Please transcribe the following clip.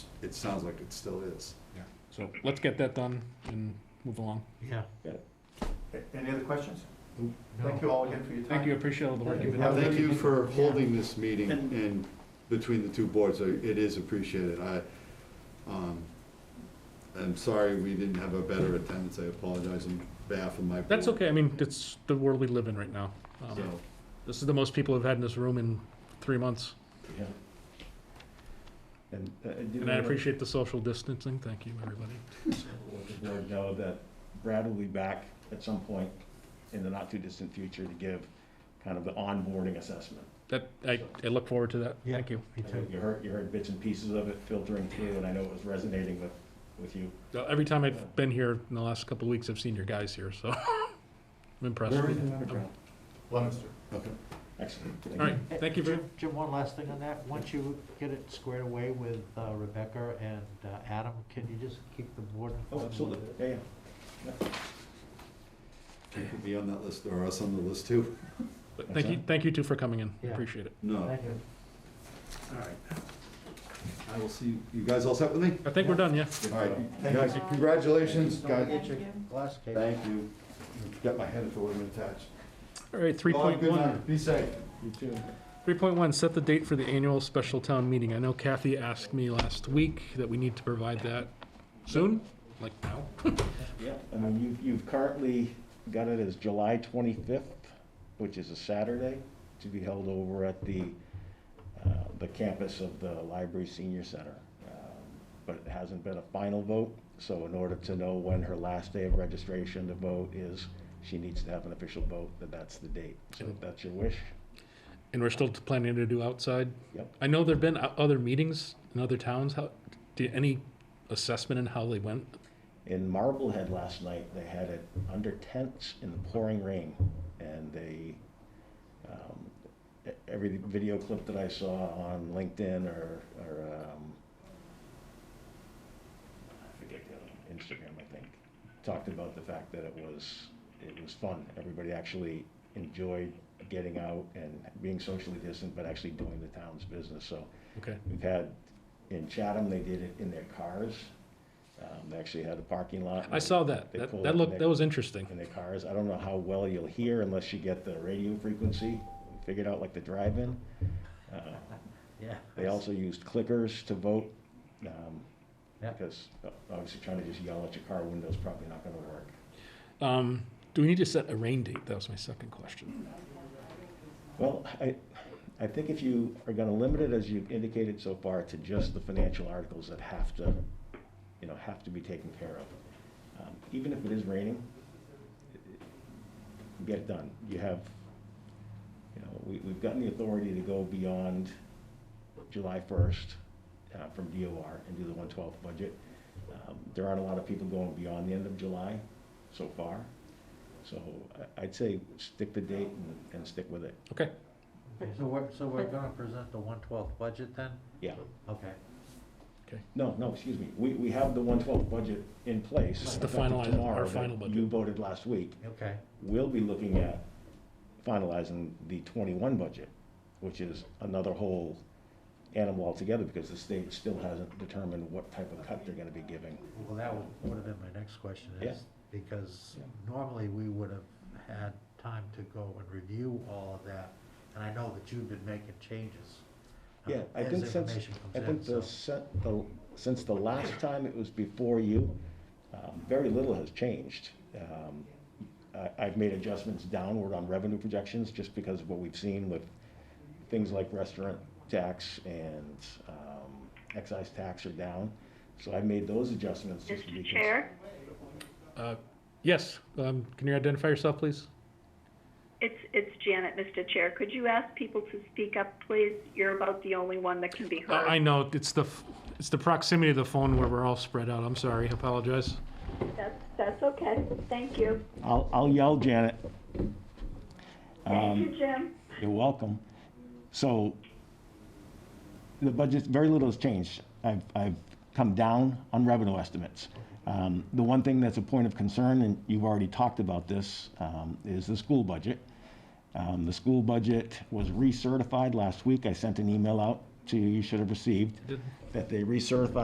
it sounds like it still is. So let's get that done and move along. Yeah. Okay, Any other questions? Nope. Thank you all again for your time. Thank you, I appreciate all the work you've been Yeah, doing. Thank you for Yeah. holding this meeting And- and between the two boards, I- it is appreciated. I, um, I'm sorry we didn't have a better attendance, I apologize on behalf of my board. That's okay, I mean, it's the world we live in right now. Um, So, This is the most people have had in this room in three months, Yeah. And uh, I do and I wanna appreciate the social distancing, thank you, everybody. let the board know that Brad will be back at some point in the not-too-distant future to give kind of the onboarding assessment. That, I, I look forward to that, Yeah. thank you. Me I know too. You heard, you heard bits and pieces of it filtering through, and I know it was resonating with, with you. Uh, Every time I've been here in the last couple of weeks, I've seen your guys here, so I'm impressed. Where All is the letter, Brad? Leominster. Okay. Excellent. Thank you. right, thank you very, Jim- Jim, one last thing on that. Once you get it squared away with uh, Rebecca and uh, Adam, can you just keep the board? Oh, absolutely, yeah, yeah. You could be on that list or us on the list too. but thank you, thank you two for coming in, Yeah. appreciate it. No, Thank you. all right. I will see, you you guys all set with me? I think we're done, yeah? All right, guys, congratulations, guys, Thank you. Glass case. thank you. Got my head if it wasn't attached. All right, three Well, have point a good one. night. Be safe. You too. Three point one, set the date for the annual special town meeting. I know Kathy asked me last week that we need to provide that soon, like now. Yeah, I mean, you've, you've currently got it as July twenty-fifth, which is a Saturday, to be held over at the, uh, the campus of the Library Senior Center. Um, But it hasn't been a final vote, so in order to know when her last day of registration to vote is, she needs to have an official vote, that that's the date. So if that's your wish, And we're still planning to do outside. Yep. I know there've been o- other meetings in other towns. How, do any assessment in how they went? In Marblehead last night, they had it under tents in the pouring rain, and they, um, e- every video clip that I saw on LinkedIn or, or, um, I forget the other, one, Instagram, I think, talked about the fact that it was, it was fun. Everybody actually enjoyed getting out and being socially distant, but actually doing the town's business, so Okay, We've had, in Chatham, they did it in their cars. Um, They actually had a parking lot. I saw that. They That, pulled that up looked, in that their- was interesting. In their cars. I don't know how well you'll hear unless you get the radio frequency figured out like the drive-in. Uh, Yeah. They also used clickers to vote, um, Yeah. because uh, obviously trying to just yell at your car window is probably not gonna work. Um, do we need to set a rain date? That was my second question. Well, I, I think if you are gonna limit it, as you've indicated so far, to just the financial articles that have to, you know, have to be taken care of. Um, Even if it is raining, get it done. You have, you know, we, we've gotten the authority to go beyond July first, uh, from DOR and do the one twelfth budget. Um, There aren't a lot of people going beyond the end of July so far, so I- I'd say stick the date and, and stick with it. Okay, Okay, So we're, so we're gonna present the one twelfth budget then? Yeah, Okay. no, no, excuse me, we, we have the one twelve budget in place. This is the effective finalized- our tomorrow that final budget. You voted last week. Okay. We'll be looking at finalizing the twenty-one budget, which is another whole animal altogether, because the state still hasn't determined what type of cut they're gonna be giving. Well, that would, would have been my next question Yeah. is, because normally we would have had time to go and review all of that. And I know that you've been making changes. uh, Yeah, I as think since, information I comes think in, so- the, sen- the, since the last time it was before you, um, very little has changed. Um, I, I've made adjustments downward on revenue projections just because of what we've seen with things like restaurant tax and, um, excise tax are down. So I made those adjustments just to be. Mr. cons- Chair, uh, yes, um, can you identify yourself, please? it's, it's Janet, Mr. Chair. Could you ask people to speak up, please? You're about the only one that can be I, Oh, I heard. know, it's the, f- it's the proximity of the phone where we're all spread out. I'm sorry, I apologize. That's, that's okay. Thank you. I'll, I'll yell, Janet. Thank you, Jim. You're welcome. So the budget, very little has changed. I've, I've come down on revenue estimates. Um, The one thing that's a point of concern, and you've already talked about this, um, is the school budget. Um, The school budget was recertified last week. I sent an email out to you, you should have received, that they recertified